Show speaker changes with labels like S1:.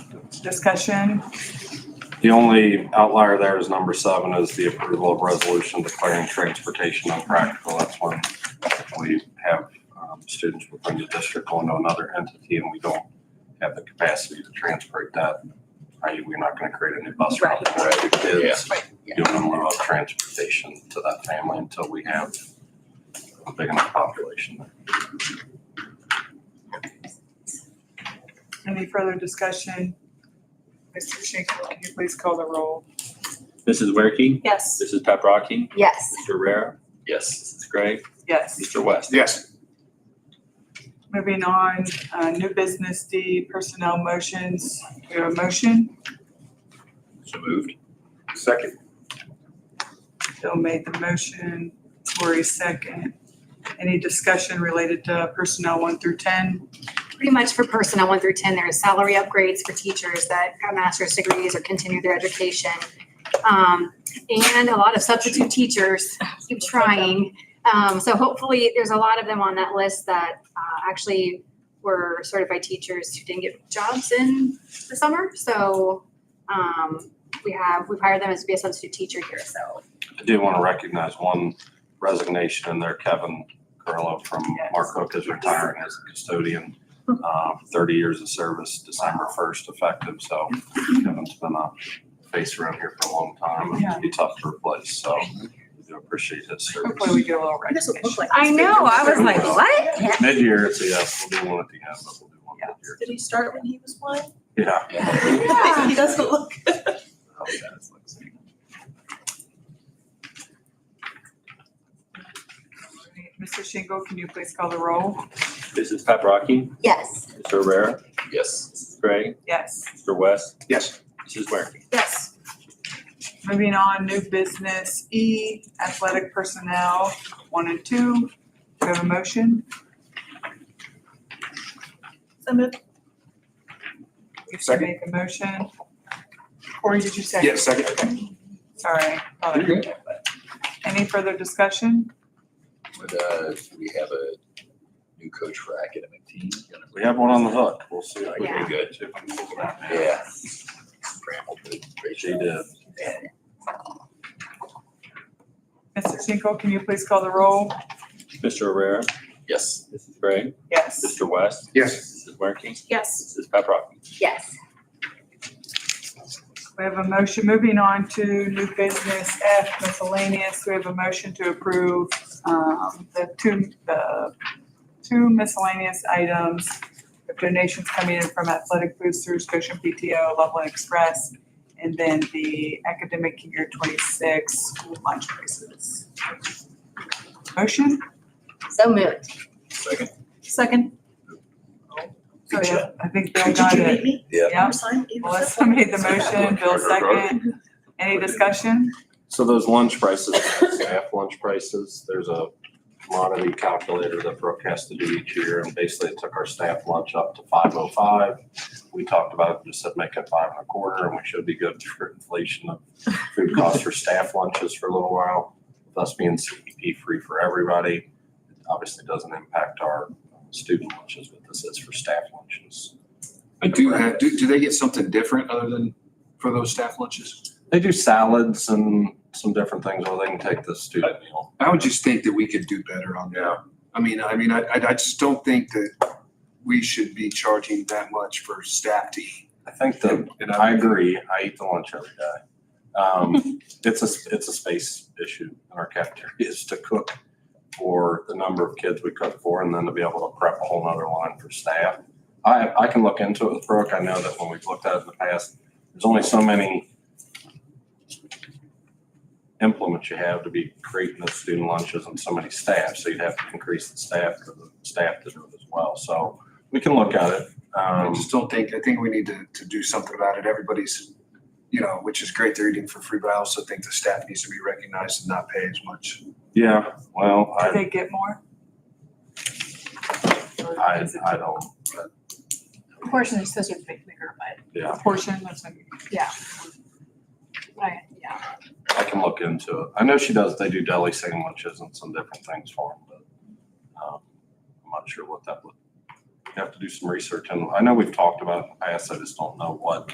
S1: discussion?
S2: The only outlier there is number seven is the approval of resolution declaring transportation unpractical. That's when we have um, students within the district going to another entity and we don't have the capacity to transport that. i.e. we're not gonna create a new bus route for every kids.
S1: Right,
S2: Give them a lot of transportation to that family until we have a big enough population.
S1: Any further discussion? Mr. Schinkel, can you please call the roll?
S3: Mrs. Werke?
S4: Yes.
S3: Mrs. Paprocki?
S4: Yes.
S3: Mr. Rare? Yes. Mrs. Gray?
S1: Yes.
S3: Mr. West?
S5: Yes.
S1: Moving on, uh, new business D, personnel motions. We have a motion.
S3: So moved.
S5: Second.
S1: Bill made the motion. Lori second. Any discussion related to personnel one through ten?
S4: Pretty much for personnel one through ten, there's salary upgrades for teachers that got master's degrees or continue their education. Um, and a lot of substitute teachers keep trying. Um, so hopefully, there's a lot of them on that list that, uh, actually were certified teachers who didn't get jobs in the summer. So, um, we have, we've hired them as to be a substitute teacher here, so.
S2: I do want to recognize one resignation in there, Kevin Carlo from
S1: Yes.
S2: Mark Hook is retiring as a custodian. um, Thirty years of service, December first effective, so Kevin's been a face around here for a long time and
S1: Yeah.
S2: it'd be tough to replace, so we do appreciate his
S1: Hopefully
S2: service.
S1: we get a little recognition.
S6: like.
S4: I know, I was like, what?
S2: Mid-year, it's a yes, we'll do one at the end, but we'll do one mid-year.
S6: Did he start when he was one?
S2: Yeah.
S4: Yeah.
S6: He doesn't look.
S1: Mr. Schinkel, can you please call the roll?
S3: Mrs. Paprocki?
S4: Yes.
S3: Mr. Rare? Yes. Mrs. Gray?
S1: Yes.
S3: Mr. West?
S5: Yes.
S3: Mrs. Werke?
S6: Yes.
S1: Moving on, new business E, athletic personnel, one and two. Do we have a motion?
S6: So moved.
S1: If you
S5: Second.
S1: make the motion. Or did you second?
S5: Yes, second.
S1: Sorry. Thought I
S7: You're good.
S1: did, but- Any further discussion?
S7: Would, uh, do we have a new coach for academic team?
S2: We have one on the hook, we'll see. if we
S4: Yeah.
S2: can get to it.
S7: Yeah. Bramble did a great
S2: She
S7: job.
S2: did.
S7: And
S1: Mr. Schinkel, can you please call the roll?
S3: Mr. Rare?
S7: Yes,
S3: Mrs. Gray?
S1: Yes.
S3: Mr. West?
S5: Yes.
S3: Mrs. Werke?
S6: Yes.
S3: Mrs. Paprocki?
S4: Yes.
S1: We have a motion. Moving on to new business F miscellaneous. We have a motion to approve um, the two, the two miscellaneous items. The donations coming in from Athletic Boosters, Goshen PTO, Loveland Express, and then the academic year twenty-six school lunch prices. Motion?
S4: So moved.
S7: second.
S6: Second.
S1: So, yeah, I think Bill
S6: Did you
S1: got
S6: read
S1: it.
S6: me?
S1: Yeah.
S6: Your sign? It was
S1: Melissa made the motion, Bill second. Any discussion?
S2: So those lunch prices, staff lunch prices, there's a commodity calculator that Brooke has to do each year, and basically it took our staff lunch up to five oh five. We talked about, it, just said make it five and a quarter, and we should be good for inflation of food costs for staff lunches for a little while, thus being CEP free for everybody. It Obviously doesn't impact our student lunches, but this is for staff lunches.
S5: I do have, do, do they get something different other than for those staff lunches?
S2: They do salads and some different things, or they can take the student meal.
S5: I would just think that we could do better on that. I mean, I mean, I, I I just don't think that we should be charging that much for staff to eat.
S2: I think the, and I agree, I eat the lunch every day. Um, it's a, it's a space issue in our cafeteria is to cook for the number of kids we cook for and then to be able to prep a whole nother line for staff. I, I can look into it with Brooke. I know that when we've looked at it in the past, there's only so many implements you have to be creating the student lunches and so many staff, so you'd have to increase the staff for the staff to do it as well. So we can look at it.
S5: I
S2: Um,
S5: just don't think, I think we need to, to do something about it. Everybody's, you know, which is great, they're eating for free, but I also think the staff needs to be recognized and not pay as much.
S2: Yeah, well,
S1: Did
S2: I,
S1: they get more?
S2: I, I don't,
S8: Portion is supposed to be bigger, but
S2: yeah,
S1: Portion, that's what-
S8: I, yeah.
S2: I can look into it. I know she does, they do deli sandwiches and some different things for them, but, um, I'm not sure what that would, you have to do some research and I know we've talked about it in the past, I just don't know what